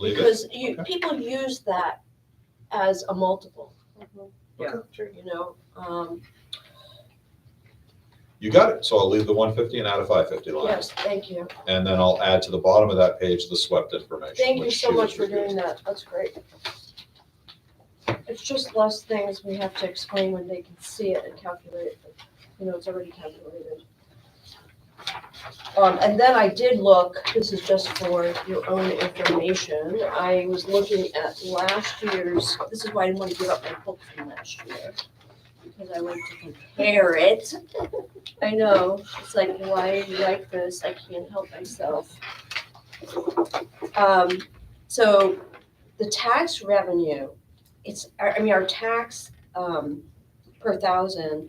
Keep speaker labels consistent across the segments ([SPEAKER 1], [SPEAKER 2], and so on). [SPEAKER 1] Leave it.
[SPEAKER 2] Because you,
[SPEAKER 1] Okay.
[SPEAKER 2] people use that as a multiple,
[SPEAKER 3] Mm-hmm.
[SPEAKER 4] Yeah,
[SPEAKER 1] Okay.
[SPEAKER 4] true.
[SPEAKER 2] you know, um,
[SPEAKER 1] You got it. So I'll leave the one fifty and add a five fifty line.
[SPEAKER 2] yes, thank you.
[SPEAKER 1] And then I'll add to the bottom of that page the swept information.
[SPEAKER 2] Thank you
[SPEAKER 1] which
[SPEAKER 2] so
[SPEAKER 1] she
[SPEAKER 2] much for
[SPEAKER 1] was
[SPEAKER 2] doing that, that's great. It's just less things we have to explain when they can see it and calculate, it. you know, it's already calculated. Um, and then I did look, this is just for your own information, I was looking at last year's, this is why I didn't want to give up my book from last year. Because I wanted to compare it. I know, it's like, why do you like this? I can't help myself. Um, so the tax revenue, it's, I I mean, our tax, um, per thousand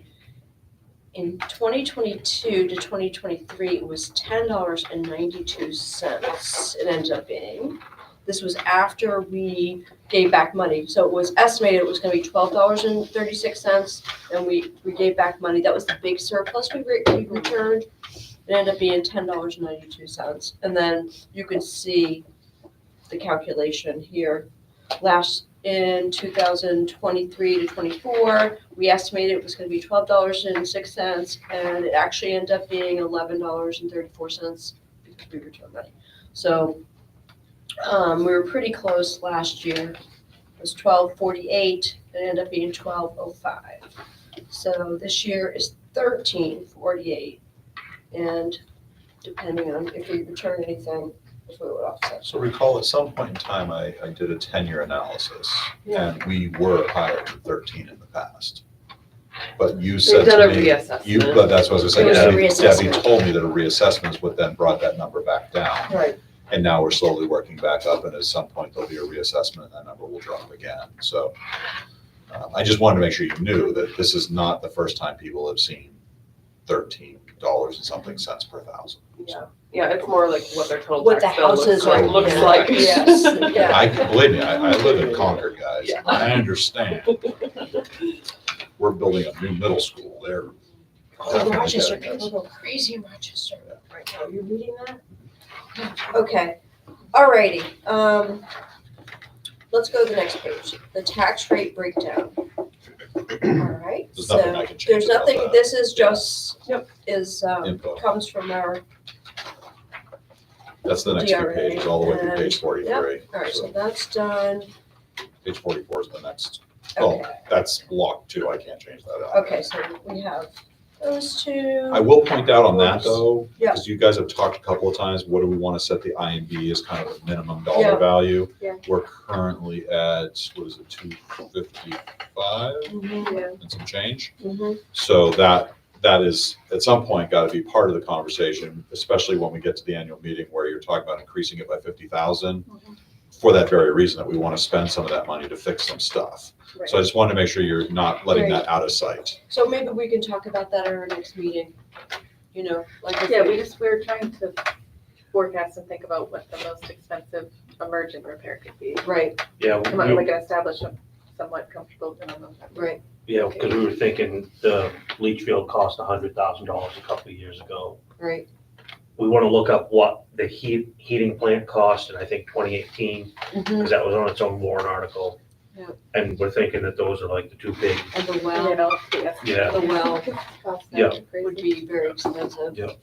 [SPEAKER 2] in twenty twenty-two to twenty twenty-three was ten dollars and ninety-two cents it ended up being. This was after we gave back money, so it was estimated it was gonna be twelve dollars and thirty-six cents, and we, we gave back money, that was the big surplus we re- we returned. It ended up being ten dollars and ninety-two cents, and then you can see the calculation here. Last, in two thousand twenty-three to twenty-four, we estimated it was gonna be twelve dollars and six cents, and it actually ended up being eleven dollars and thirty-four cents because we returned money. So, um, we were pretty close last year. It was twelve forty-eight, it ended up being twelve oh five. So this year is thirteen forty-eight, and depending on if we return anything, if we would offset.
[SPEAKER 1] So recall at some point in time, I, I did a ten-year analysis
[SPEAKER 4] Yeah.
[SPEAKER 1] and we were higher than thirteen in the past. But you said
[SPEAKER 4] They've done a
[SPEAKER 1] to me, you,
[SPEAKER 4] reassessment.
[SPEAKER 1] but that's what I was
[SPEAKER 2] It
[SPEAKER 1] gonna
[SPEAKER 2] was a
[SPEAKER 1] say, Debbie, Debbie
[SPEAKER 2] reassessment.
[SPEAKER 1] told me that a reassessment is what then brought that number back down.
[SPEAKER 2] Right,
[SPEAKER 1] And now we're slowly working back up and at some point there'll be a reassessment and that number will drop again, so. um, I just wanted to make sure you knew that this is not the first time people have seen thirteen dollars and something cents per thousand.
[SPEAKER 2] Yeah.
[SPEAKER 4] Yeah, it's more like what their total
[SPEAKER 2] What
[SPEAKER 4] tax
[SPEAKER 2] the
[SPEAKER 4] bill looks
[SPEAKER 2] houses
[SPEAKER 1] are-
[SPEAKER 4] like, looks
[SPEAKER 1] yeah.
[SPEAKER 4] like.
[SPEAKER 2] Yes, yeah.
[SPEAKER 1] I, can believe me, I, I live in Concord, guys.
[SPEAKER 4] Yeah.
[SPEAKER 1] I understand. We're building a new middle school there.
[SPEAKER 2] Oh, Rochester, people go crazy in Rochester right now. You're reading that? Okay, alrighty, um, let's go to the next page, the tax rate breakdown. Alright,
[SPEAKER 1] There's nothing I
[SPEAKER 2] so
[SPEAKER 1] can change.
[SPEAKER 2] there's
[SPEAKER 1] about
[SPEAKER 2] nothing,
[SPEAKER 1] that.
[SPEAKER 2] this is just,
[SPEAKER 4] Yep.
[SPEAKER 2] is, um,
[SPEAKER 1] Info.
[SPEAKER 2] comes from our,
[SPEAKER 1] That's the next two
[SPEAKER 2] DRA,
[SPEAKER 1] pages, all the way through page
[SPEAKER 2] and-
[SPEAKER 1] forty-three.
[SPEAKER 2] alright,
[SPEAKER 1] So
[SPEAKER 2] so that's done.
[SPEAKER 1] Page forty-four is the next, oh,
[SPEAKER 2] Okay,
[SPEAKER 1] that's locked too, I can't change that out.
[SPEAKER 2] okay, so we have those two.
[SPEAKER 1] I will point out on that though,
[SPEAKER 2] Yeah.
[SPEAKER 1] because you guys have talked a couple of times, what do we want to set the IMB as kind of a minimum
[SPEAKER 2] Yeah.
[SPEAKER 1] dollar value?
[SPEAKER 2] Yeah.
[SPEAKER 1] We're currently at, what is it, two fifty-five
[SPEAKER 2] Mhm,
[SPEAKER 1] and some change?
[SPEAKER 2] mhm.
[SPEAKER 1] So that, that is, at some point, got to be part of the conversation, especially when we get to the annual meeting where you're talking about increasing it by fifty thousand.
[SPEAKER 2] Mhm.
[SPEAKER 1] For that very reason, that we want to spend some of that money to fix some stuff.
[SPEAKER 2] Right.
[SPEAKER 1] So I just wanted to make sure you're not letting that out of sight.
[SPEAKER 2] So maybe we can talk about that at our next meeting, you know, like. if
[SPEAKER 3] Yeah, we just, we were trying to forecast and think about what the most expensive emergent repair could be.
[SPEAKER 2] Right,
[SPEAKER 5] Yeah,
[SPEAKER 3] Come on,
[SPEAKER 5] we-
[SPEAKER 3] like an established, um, somewhat comfortable minimum.
[SPEAKER 2] right,
[SPEAKER 5] yeah, because we were thinking the leach field cost a hundred thousand dollars a couple of years ago.
[SPEAKER 2] right,
[SPEAKER 5] We want to look up what the heat, heating plant cost in, I think, twenty eighteen,
[SPEAKER 2] mhm,
[SPEAKER 5] because that was on its own warrant article.
[SPEAKER 2] Yeah.
[SPEAKER 5] And we're thinking that those are like the two big,
[SPEAKER 2] and the
[SPEAKER 3] You
[SPEAKER 2] well
[SPEAKER 3] know, the estimate.
[SPEAKER 5] Yeah.
[SPEAKER 2] The well.
[SPEAKER 3] Cost
[SPEAKER 5] Yeah.
[SPEAKER 3] that
[SPEAKER 2] would
[SPEAKER 3] crazy.
[SPEAKER 2] be very expensive.
[SPEAKER 5] Yep.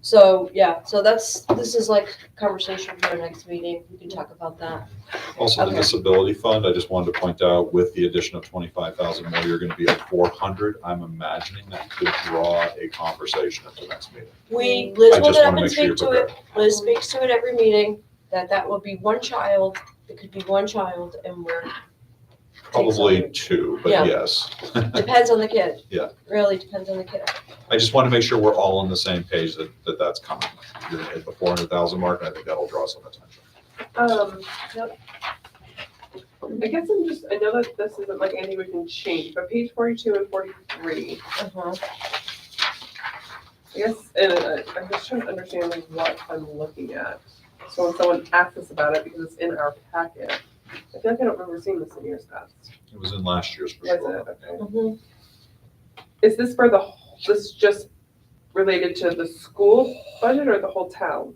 [SPEAKER 2] So, yeah, so that's, this is like conversation for our next meeting, we can talk about that.
[SPEAKER 1] Also, the
[SPEAKER 2] Okay.
[SPEAKER 1] disability fund, I just wanted to point out, with the addition of twenty-five thousand more, you're going to be at four hundred. I'm imagining that could draw a conversation at the next meeting.
[SPEAKER 2] We, Liz
[SPEAKER 1] I
[SPEAKER 2] will
[SPEAKER 1] just
[SPEAKER 2] get up
[SPEAKER 1] want to make
[SPEAKER 2] and
[SPEAKER 1] sure you're
[SPEAKER 2] speak to it,
[SPEAKER 1] prepared.
[SPEAKER 2] Liz speaks to it every meeting, that that will be one child, it could be one child, and we're,
[SPEAKER 1] Probably two, but
[SPEAKER 2] Yeah.
[SPEAKER 1] yes.
[SPEAKER 2] depends on the kid.
[SPEAKER 1] Yeah.
[SPEAKER 2] Really depends on the kid.
[SPEAKER 1] I just want to make sure we're all on the same page that, that that's coming. You're gonna hit the four hundred thousand mark, and I think that'll draw some attention.
[SPEAKER 3] Um, yep.
[SPEAKER 4] I guess I'm just, I know that this isn't like anything we can change, but page forty-two and forty-three,
[SPEAKER 2] Uh-huh.
[SPEAKER 4] I guess, and uh, I'm just trying to understand like what I'm looking at. So when someone asks us about it, because it's in our packet, I feel like I don't remember seeing this in years past.
[SPEAKER 1] It was in last year's for
[SPEAKER 4] Was
[SPEAKER 1] sure.
[SPEAKER 4] it? Okay.
[SPEAKER 2] Mhm.
[SPEAKER 4] Is this for the, wh- this just related to the school budget or the whole town?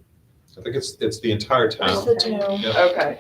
[SPEAKER 2] I think it's, it's the entire town.
[SPEAKER 1] It's the town.
[SPEAKER 2] Yeah.
[SPEAKER 4] Okay.